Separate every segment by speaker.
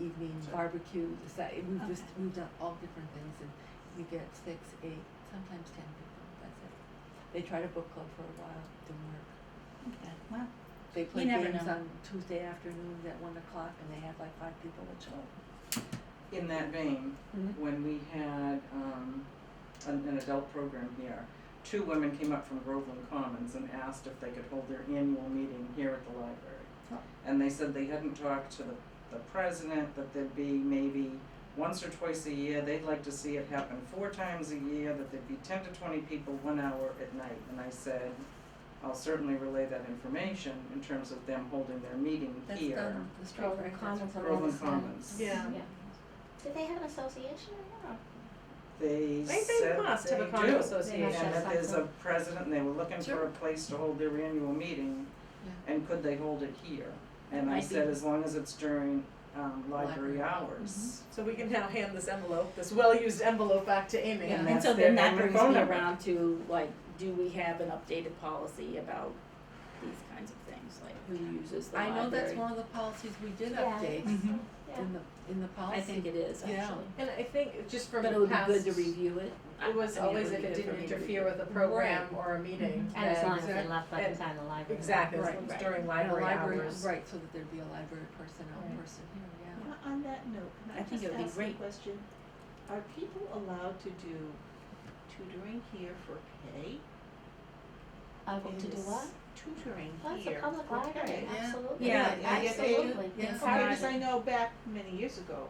Speaker 1: evening,
Speaker 2: Sure.
Speaker 1: barbecue, so- we've
Speaker 3: Okay.
Speaker 1: just, we've done all different things and we get six, eight, sometimes ten people, that's it. They tried a book club for a while, didn't work.
Speaker 3: Okay, wow.
Speaker 1: They play
Speaker 3: never
Speaker 1: games
Speaker 3: know.
Speaker 1: on Tuesday afternoons at one o'clock and they have like five people that show up.
Speaker 2: In that vein, when we had um, an, an adult program here, two women came up from Groveland Commons and asked if they could hold their annual meeting here at the library.
Speaker 1: Oh.
Speaker 2: And they said they hadn't talked to the, the president, that there'd be maybe once or twice a year, they'd like to see it happen four times a year, that there'd be ten to twenty people, one hour at night. And I said, I'll certainly relay that information in terms of them holding their meeting
Speaker 1: That's
Speaker 2: here.
Speaker 1: done, the Strait
Speaker 4: Groveland
Speaker 1: Breakers.
Speaker 4: Commons on
Speaker 2: Groveland
Speaker 4: August tenth.
Speaker 2: Commons.
Speaker 4: Yeah.
Speaker 5: Do they have an association or not?
Speaker 2: They
Speaker 4: They, they
Speaker 2: said
Speaker 4: must have a
Speaker 2: they
Speaker 4: condo
Speaker 2: do.
Speaker 4: association.
Speaker 2: And that there's a
Speaker 4: something.
Speaker 2: president, and they were looking for
Speaker 1: Sure.
Speaker 2: a place to hold their annual meeting,
Speaker 1: Yeah.
Speaker 2: and could they hold it here? And I
Speaker 1: Might
Speaker 2: said,
Speaker 1: be.
Speaker 2: as long as it's during, um,
Speaker 1: Library.
Speaker 2: library
Speaker 1: Mm-hmm.
Speaker 2: hours.
Speaker 4: So we can now hand this envelope, this well-used envelope back to Amy.
Speaker 1: Yeah.
Speaker 2: And
Speaker 3: And
Speaker 2: that's
Speaker 3: so
Speaker 2: their
Speaker 3: then that
Speaker 2: number and
Speaker 3: brings
Speaker 2: phone
Speaker 3: me
Speaker 2: number.
Speaker 3: around to like, do we have an updated policy about these kinds of things, like who uses the
Speaker 1: I
Speaker 3: library?
Speaker 1: know that's one of the policies we did
Speaker 5: Yeah.
Speaker 1: update
Speaker 2: Mhm.
Speaker 5: Yeah.
Speaker 1: in the, in the policy.
Speaker 3: I think it is
Speaker 1: Yeah.
Speaker 3: actually,
Speaker 4: And I think just from
Speaker 3: but it
Speaker 4: the
Speaker 3: would be
Speaker 4: past,
Speaker 3: good to review it. I-
Speaker 4: it was
Speaker 3: I mean,
Speaker 4: always
Speaker 3: would
Speaker 4: if
Speaker 3: be
Speaker 4: it
Speaker 3: good for
Speaker 4: didn't
Speaker 3: me to
Speaker 4: interfere
Speaker 3: review.
Speaker 4: with a program or a meeting.
Speaker 5: And as
Speaker 4: then-
Speaker 5: long as they left buttons on the library.
Speaker 4: Exactly, as
Speaker 1: Right.
Speaker 4: long as
Speaker 3: Right.
Speaker 4: during
Speaker 1: And a
Speaker 4: library
Speaker 1: library,
Speaker 4: hours.
Speaker 1: right, so that there'd be a library personnel
Speaker 4: Right.
Speaker 1: person here, yeah.
Speaker 6: On- On that note,
Speaker 3: I
Speaker 6: can I
Speaker 3: think
Speaker 6: just
Speaker 3: it would be
Speaker 6: ask a
Speaker 3: great.
Speaker 6: question? Are people allowed to do tutoring here for pay?
Speaker 5: Uh, to do
Speaker 6: Is
Speaker 5: what?
Speaker 6: Tutoring
Speaker 5: Well, it's a
Speaker 6: here
Speaker 5: public
Speaker 6: for
Speaker 5: library,
Speaker 6: pay.
Speaker 1: Yeah.
Speaker 5: absolutely.
Speaker 3: Yeah,
Speaker 4: yeah, yeah, they do.
Speaker 5: Absolutely.
Speaker 1: Yeah.
Speaker 5: It's
Speaker 6: Probably
Speaker 5: not-
Speaker 6: because I know back many years ago,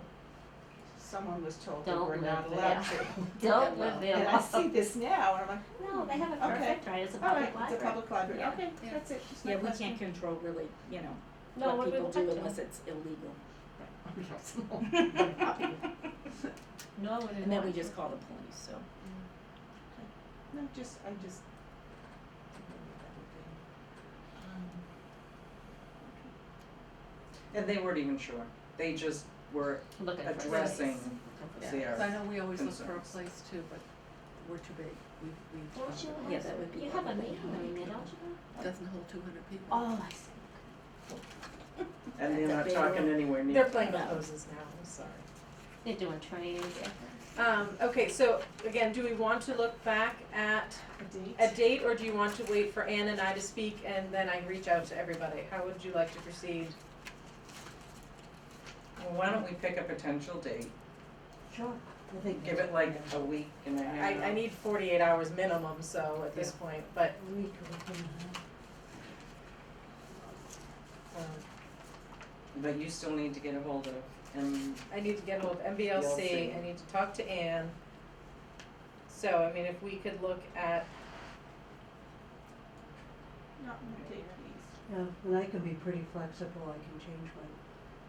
Speaker 6: someone was told that
Speaker 5: Don't
Speaker 6: we're not
Speaker 5: live there.
Speaker 6: allowed to.
Speaker 5: Don't live there.
Speaker 6: And I see this now, and I'm like,
Speaker 5: No, they have a
Speaker 6: Okay.
Speaker 5: perfect right, it's a
Speaker 6: all
Speaker 5: public
Speaker 6: right,
Speaker 5: library.
Speaker 6: it's a public library,
Speaker 3: Yeah.
Speaker 6: okay,
Speaker 1: Yeah.
Speaker 6: that's it, just my
Speaker 3: Yeah, we
Speaker 6: question.
Speaker 3: can't control really, you know,
Speaker 5: No,
Speaker 3: what
Speaker 5: we
Speaker 3: people
Speaker 5: would like
Speaker 3: do
Speaker 5: to.
Speaker 3: unless it's illegal,
Speaker 5: No, we
Speaker 3: and then we just call the police, so.
Speaker 6: No, just, I just. Um,
Speaker 2: And they weren't even sure, they just were
Speaker 5: Looking for a place.
Speaker 2: addressing
Speaker 1: Yeah.
Speaker 2: their
Speaker 1: So I know we always look for a
Speaker 2: concerns.
Speaker 1: place too, but we're too big, we, we.
Speaker 5: Don't you
Speaker 3: Yeah,
Speaker 5: have,
Speaker 3: that would be
Speaker 5: you have a
Speaker 3: lovely.
Speaker 5: meeting room, there, don't you?
Speaker 1: Doesn't hold two hundred people.
Speaker 5: Oh, I see.
Speaker 2: and they're not
Speaker 3: That's a big
Speaker 2: talking
Speaker 3: one.
Speaker 2: anywhere near.
Speaker 4: They're playing with hoses now, I'm sorry.
Speaker 5: They're doing trainings.
Speaker 4: Um, okay, so again, do we want to look back at
Speaker 6: A date?
Speaker 4: a date or do you want to wait for Ann and I to speak and then I reach out to everybody? How would you like to proceed?
Speaker 2: Well, why don't we pick a potential date,
Speaker 5: Sure.
Speaker 2: give it like a week and a half.
Speaker 4: I, I need forty-eight hours minimum, so at this point, but, um,
Speaker 2: But you still need to get a hold of, and
Speaker 4: I need to get hold of MBLC, I need to talk to Ann. So, I mean, if we could look at,
Speaker 6: Not a date, please.
Speaker 7: Yeah, and I can be pretty flexible, I can change my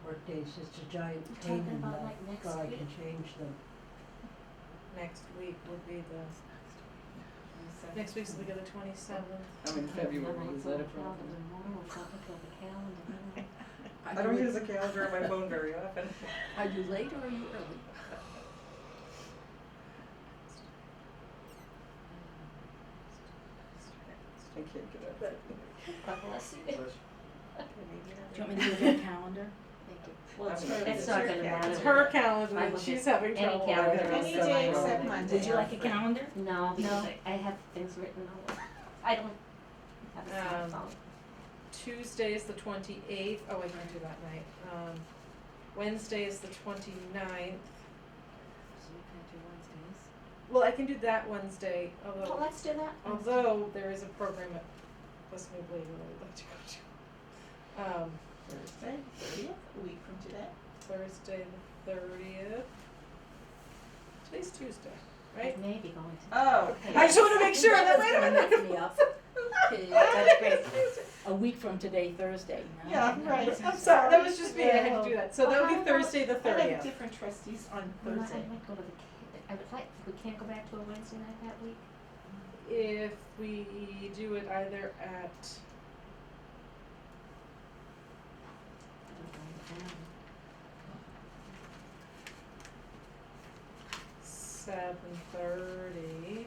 Speaker 7: work days, it's a giant
Speaker 5: You're
Speaker 7: pain
Speaker 5: talking
Speaker 7: in the,
Speaker 5: about, like, next
Speaker 7: but I
Speaker 5: week?
Speaker 7: can change them.
Speaker 4: next week would be the,
Speaker 6: Twenty-second.
Speaker 4: next week's the twenty-seventh.
Speaker 2: I'm in February,
Speaker 5: Then I
Speaker 2: is
Speaker 5: thought
Speaker 2: that a
Speaker 5: about
Speaker 2: problem?
Speaker 5: it tomorrow, I'll have to oh, look at the calendar, you know.
Speaker 2: I don't use a calendar on my phone very often.
Speaker 1: Are you late or are you early?
Speaker 2: I can't get out of it.
Speaker 5: God bless you.
Speaker 3: Do you want me to do your calendar?
Speaker 5: Thank you. Well, it's
Speaker 2: I'm
Speaker 5: her,
Speaker 2: okay.
Speaker 5: it's not gonna matter.
Speaker 4: It's her calendar,
Speaker 5: I
Speaker 4: and
Speaker 5: look
Speaker 4: she's
Speaker 5: at
Speaker 4: having
Speaker 5: any
Speaker 4: trouble.
Speaker 5: calendar,
Speaker 4: with it.
Speaker 6: Any
Speaker 5: so I
Speaker 6: day
Speaker 5: know
Speaker 6: except
Speaker 5: that-
Speaker 6: Monday.
Speaker 3: Would you like a calendar?
Speaker 5: No, because
Speaker 4: No.
Speaker 5: I, I have things written all over. I don't have a
Speaker 4: Um,
Speaker 5: smartphone.
Speaker 4: Tuesday is the twenty-eighth, oh, I can do that night, um, Wednesday is the twenty-ninth,
Speaker 1: So we can't do Wednesdays.
Speaker 4: well, I can do that Wednesday,
Speaker 5: Well,
Speaker 4: although,
Speaker 5: let's do that.
Speaker 4: although there is a program at West Middle Lake that I'd like to go to. Um,
Speaker 6: Thursday, thirtieth, a week from today.
Speaker 4: Thursday the thirtieth, today's Tuesday, right?
Speaker 5: Maybe going to.
Speaker 6: Oh.
Speaker 4: I just wanna make sure that, wait a minute.
Speaker 3: That's gonna mess me up.
Speaker 4: That's great.
Speaker 3: A week from today, Thursday, no?
Speaker 6: Yeah, right,
Speaker 4: I'm sorry, that was just me, I had to do that, so that would
Speaker 6: Well,
Speaker 4: be Thursday the
Speaker 6: I
Speaker 4: thirtieth.
Speaker 6: have different trustees on
Speaker 5: I might,
Speaker 6: Thursday.
Speaker 5: I might go to the, ca- I would like, we can't go back to a Wednesday night that week.
Speaker 4: if we do it either at
Speaker 5: I don't know, um,
Speaker 4: seven thirty